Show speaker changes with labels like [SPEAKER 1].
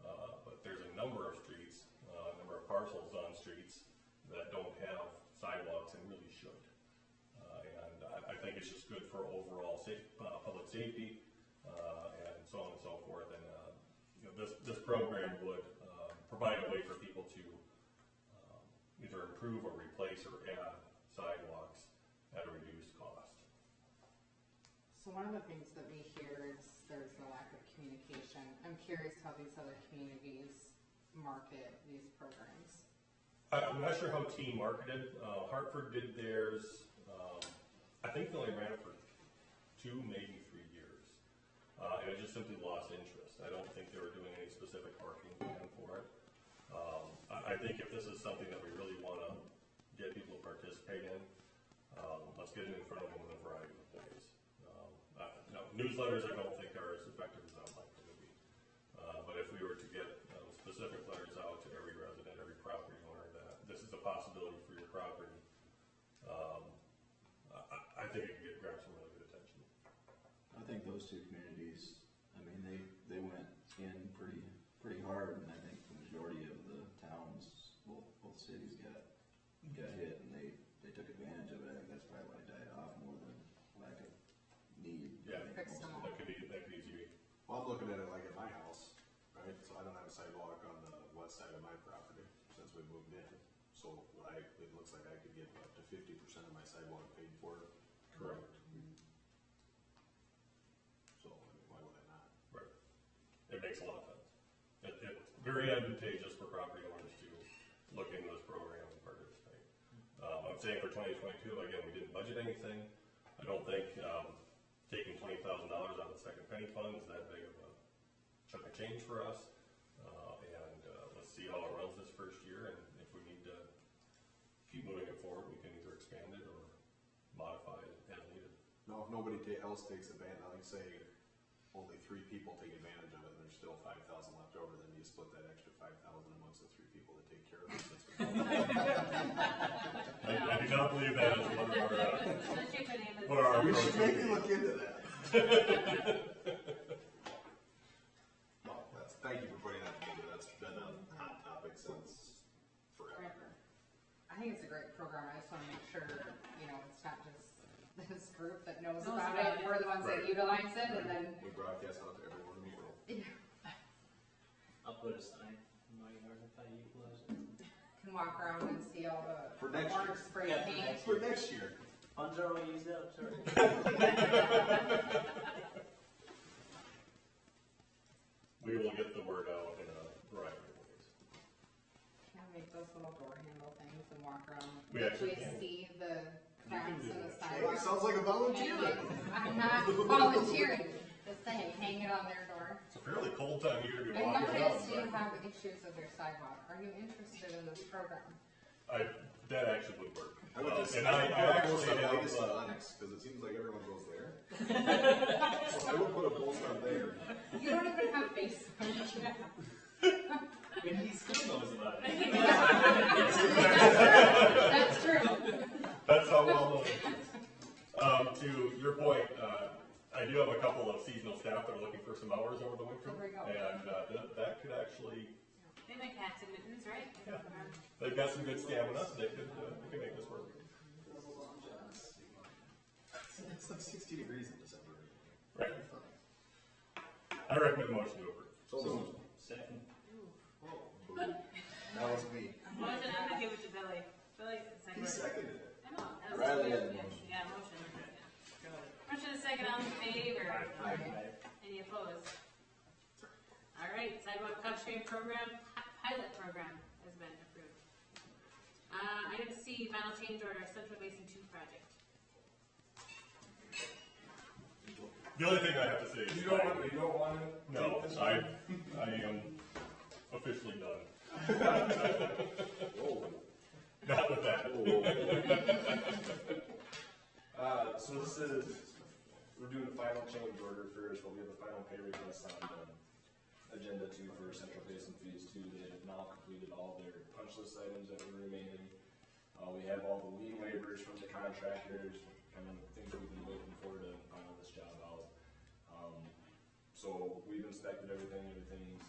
[SPEAKER 1] Uh, Uh, good for overall safe, uh, public safety, uh, and so on and so forth, and, uh, you know, this, this program would, uh, provide a way for people to, um, either improve or replace or add sidewalks at a reduced cost.
[SPEAKER 2] So one of the things that we hear is there's a lack of communication. I'm curious how these other communities market these programs.
[SPEAKER 1] I- I'm not sure how team marketed. Uh, Hartford did theirs. Um, I think they only ran it for two, maybe three years, uh, and it just simply lost interest. I don't think they were doing any specific marketing plan for it. Um, I, I think if this is something that we really want to get people to participate in, um, let's get it in front of them in a variety of ways. Um, uh, no, newsletters I don't think are as effective as I'd like them to be. Uh, but if we were to get um, specific letters out to every resident, every property owner, that this is a possibility for your property, um, I- I, I think it could get, grab some really good attention.
[SPEAKER 3] I think those two communities, I mean, they, they went in pretty, pretty hard, and I think the majority of the towns, both, both cities got, got hit, and they, they took advantage of it, I think that's probably why it died off more than lack of need. I
[SPEAKER 1] Yeah.
[SPEAKER 3] think
[SPEAKER 2] Fixed
[SPEAKER 3] most of
[SPEAKER 2] them
[SPEAKER 3] it-
[SPEAKER 1] That could be, that could easily,
[SPEAKER 4] Well, I'm looking at it like at my house, right, so I don't have a sidewalk on the west side of my property since we moved in. So I, it looks like I could get up to fifty percent of my sidewalk paid for.
[SPEAKER 1] Correct.
[SPEAKER 4] So, I mean, why would I not?
[SPEAKER 1] right, it makes a lot of sense. It, it's very advantageous for property owners to look into this program and participate. Um, I'm saying for twenty twenty-two, again, we didn't budget anything. I don't think, um, taking twenty thousand dollars out of the second penny fund is that big of a chunk of change for us. Uh, and, uh, let's see how it runs this first year, and if we need to keep moving it forward, we can either expand it or modify it as needed.
[SPEAKER 4] Now, if nobody ta- else takes advantage, like say, only three people take advantage of it, and there's still five thousand left over, then you split that extra five thousand amongst the three people that take care of it. That's-
[SPEAKER 1] I, I do not believe that is one of our, uh, What
[SPEAKER 5] What
[SPEAKER 1] are our
[SPEAKER 4] We
[SPEAKER 1] approaches?
[SPEAKER 4] should maybe look into that. Well, that's, thank you for putting that together, that's been a hot topic since forever.
[SPEAKER 2] Forever. I think it's a great program. I just want to make sure, you know, it's not just this group that knows
[SPEAKER 5] Knows
[SPEAKER 2] about
[SPEAKER 5] about
[SPEAKER 2] it.
[SPEAKER 5] it.
[SPEAKER 2] We're the ones that
[SPEAKER 1] Right.
[SPEAKER 2] utilize it and then,
[SPEAKER 4] We broadcast out to everyone in the world.
[SPEAKER 6] I'll put a sign in my yard if I utilize it.
[SPEAKER 2] can walk around and see all the
[SPEAKER 4] For next year.
[SPEAKER 2] orange spray
[SPEAKER 6] Yeah, for
[SPEAKER 2] paint.
[SPEAKER 6] next
[SPEAKER 4] For next year.
[SPEAKER 6] Funds are already used up, sorry.
[SPEAKER 1] we will get the word out in a variety of ways.
[SPEAKER 2] Can I make those little door handle things and walk around?
[SPEAKER 1] We actually can.
[SPEAKER 2] Actually see the cracks
[SPEAKER 1] do
[SPEAKER 2] in the
[SPEAKER 1] that.
[SPEAKER 4] Hey, it
[SPEAKER 2] sidewalk.
[SPEAKER 4] sounds like a volunteer.
[SPEAKER 2] I'm not volunteering, just saying, hang it on their door.
[SPEAKER 1] It's a fairly cold time of year to be
[SPEAKER 2] I
[SPEAKER 1] walking
[SPEAKER 2] noticed you
[SPEAKER 1] around,
[SPEAKER 2] have issues with your sidewalk, are you interested in this program?
[SPEAKER 1] but I, that actually would work.
[SPEAKER 4] I would
[SPEAKER 1] Uh,
[SPEAKER 4] just,
[SPEAKER 1] And I,
[SPEAKER 4] I
[SPEAKER 1] I actually
[SPEAKER 4] almost said
[SPEAKER 1] have,
[SPEAKER 4] Vegas to
[SPEAKER 1] uh,
[SPEAKER 4] Onyx, because it seems like everyone goes there. So I would put a pole star there.
[SPEAKER 2] You don't even have Facebook.
[SPEAKER 6] And he still knows about it.
[SPEAKER 2] That's true.
[SPEAKER 1] that's how well known. it is. Um, to your point, uh, I do have a couple of seasonal staff that are looking for some hours over the winter.
[SPEAKER 2] There we go.
[SPEAKER 1] And, uh, that, that could actually,
[SPEAKER 5] They like hats and mittens, right?
[SPEAKER 1] Yeah. they've got some good stamina, so they could, uh, they could make this work.
[SPEAKER 4] It's like sixty degrees in December.
[SPEAKER 1] Right. I recommend motion to approve.
[SPEAKER 4] So,
[SPEAKER 6] Second.
[SPEAKER 4] boom. that was me.
[SPEAKER 5] Motion, I'm gonna give it to Billy. Billy said
[SPEAKER 4] He seconded
[SPEAKER 5] second.
[SPEAKER 4] it.
[SPEAKER 5] I know, that was-
[SPEAKER 4] Riley had a
[SPEAKER 5] yeah,
[SPEAKER 4] motion.
[SPEAKER 5] Yeah, motion. Motion is second, all in favor?
[SPEAKER 6] Aye.
[SPEAKER 5] Any opposed? All right, sidewalk cost sharing program, pi- pilot program has been approved. Uh, item C, final change order, Central Basin Two project.
[SPEAKER 1] The only thing I have to say is.
[SPEAKER 7] You don't want, you don't want to?
[SPEAKER 1] No, I, I am officially done.
[SPEAKER 4] Whoa.
[SPEAKER 1] Not with that.
[SPEAKER 7] Uh, so this is, we're doing a final change order first, but we have a final pay request on, um, agenda two for Central Basin Phase Two. They have now completed all their punch list items that were remaining. Uh, we have all the lien waivers from the contractors, kind of things that we've been waiting for to final this job out. Um, so we've inspected everything, everything's